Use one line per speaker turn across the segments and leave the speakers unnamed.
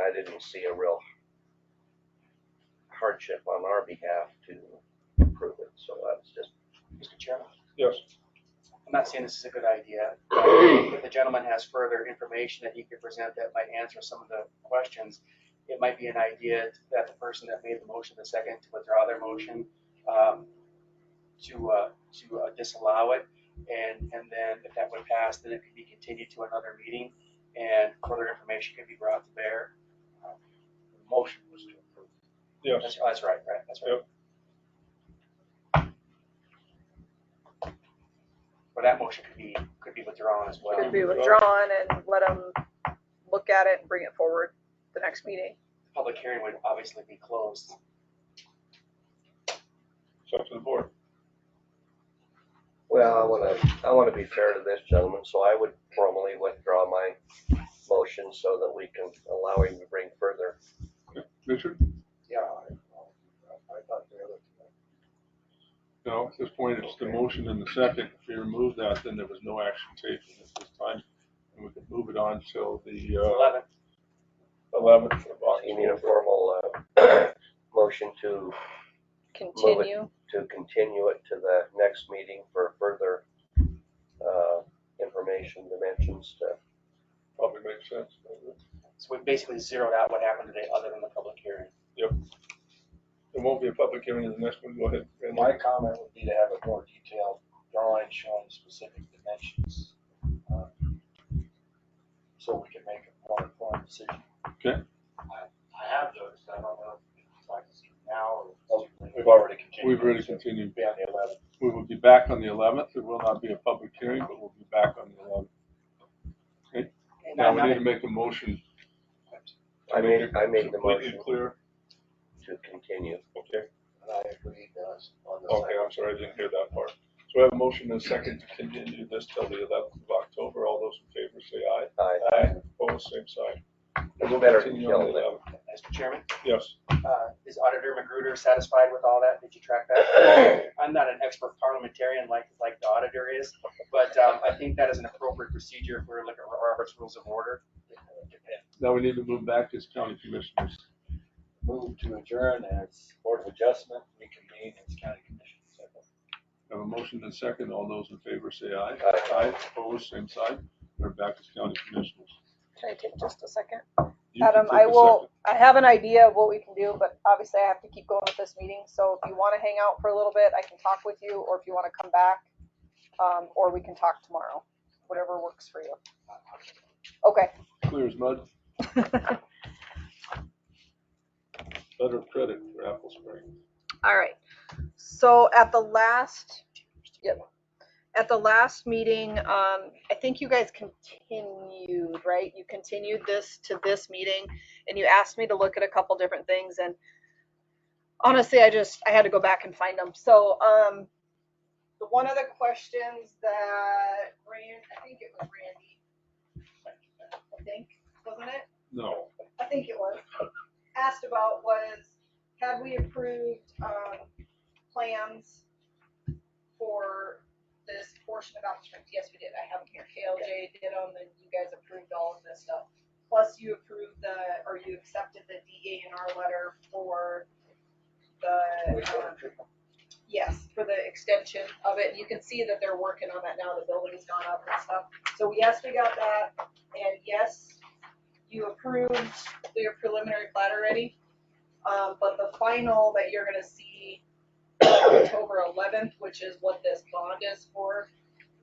I didn't see a real hardship on our behalf to approve it, so that's just,
Mr. Chairman,
Yes.
I'm not saying this is a good idea. but If the gentleman has further information that he could present that might answer some of the questions, it might be an idea that the person that made the motion, the second, to withdraw their motion, um, to, uh, to uh, disallow it. And, and then if that would pass, then it could be continued to another meeting and further information could be brought to bear. Um,
Motion was to approve.
Yes.
That's, that's right, right, that's right. But that motion could be, could be withdrawn as well.
Could be withdrawn and let them look at it and bring it forward the next meeting.
Public hearing would obviously be closed.
It's up to the board.
well, I wanna, I wanna be fair to this gentleman, so I would formally withdraw my motion so that we can allow him to bring further.
Richard?
Yeah, I, I thought the other,
No, at this point, it's the motion and the second. If you remove that, then there was no action taken at this time. And we could move it on till the, uh,
Eleven,
eleventh of
uh, You need a
August.
formal, uh, motion to
Continue.
to continue it to the next meeting for further uh, information dimensions to,
Probably makes sense.
so we basically zeroed out what happened today other than the public hearing.
There won't be a public hearing in the next one. Go ahead.
and
Randy.
my comment would be to have a more detailed drawing showing specific dimensions. uh, So we can make a more informed decision.
Okay.
I, I have those, I don't know if it's like this now or. We've already continued.
Oh, We've already continued.
Be on the eleventh.
We will be back on the eleventh. There will not be a public hearing, but we'll be back on the eleventh.
And uh,
Now,
I'm
we
not-
need to make a motion.
I made, I made the
Completely
motion
Clear.
to continue.
Okay.
And I agree, does, on the
Okay,
second.
I'm sorry, I didn't hear that part. So we have a motion and a second to continue this till the eleventh of October. All those in favor say aye.
I,
Aye. Opposed, same sign. And we'll
Better
continue on the
than
11th.
Mr. Chairman,
Yes,
uh, is Auditor Magruder satisfied with all that? Did you track that? I'm not an expert parliamentarian like, like the auditor is, but, um, I think that is an appropriate procedure if we're looking at Robert's Rules of Order.
now we need to move back as county commissioners.
Move to adjourn as Board of Adjustment, reconvene as County Commission. Second.
We Have a motion and a second. All those in favor say aye.
Aye.
Opposed, same sign. We're back as county commissioners.
Can I take just a second?
You can
Adam,
take
I
a
will,
second.
I have an idea of what we can do, but obviously I have to keep going with this meeting, so if you wanna hang out for a little bit, I can talk with you, or if you wanna come back, um, or we can talk tomorrow, whatever works for you. Okay.
Clear as mud. Letter of credit for Apple Spring.
All right. So at the last, yep, at the last meeting, um, I think you guys continued, right? You continued this to this meeting and you asked me to look at a couple different things and honestly, I just, I had to go back and find them. So, um, the one of the questions that Rand, I think it was Randy, I think, wasn't it?
No,
I think it was, asked about was, had we approved, um, plans for this portion of Apple Springs? Yes, we did. I have them here. KLJ did them and you guys approved all of this stuff. Plus you approved the, or you accepted the DA and R letter for the, um, yes, for the extension of it. And You can see that they're working on that now. The building's gone up and stuff. So yes, we got that. And yes, you approved your preliminary plat already. Um, but the final that you're gonna see October eleventh, which is what this bond is for,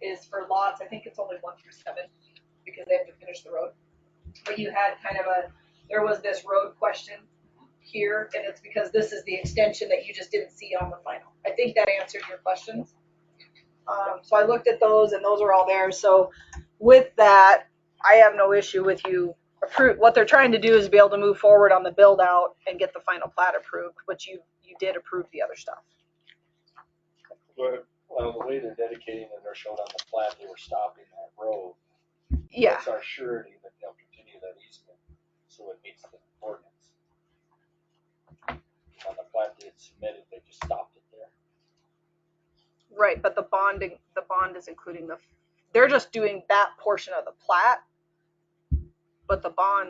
is for lots, I think it's only one through seven, because they have to finish the road. But you had kind of a, there was this road question here, and it's because this is the extension that you just didn't see on the final. I think that answered your questions. Um, so I looked at those and those are all there, so with that, I have no issue with you approve, what they're trying to do is be able to move forward on the build out and get the final plat approved, but you, you did approve the other stuff.
go ahead.
Well, the way they're dedicating and they're showing on the plat, they were stopping that road.
Yeah,
It's our surety that they'll continue that easement, so it meets the ordinance. On the plat they had submitted, they just stopped it there.
right, but the bonding, the bond is including the, they're just doing that portion of the plat. But the bond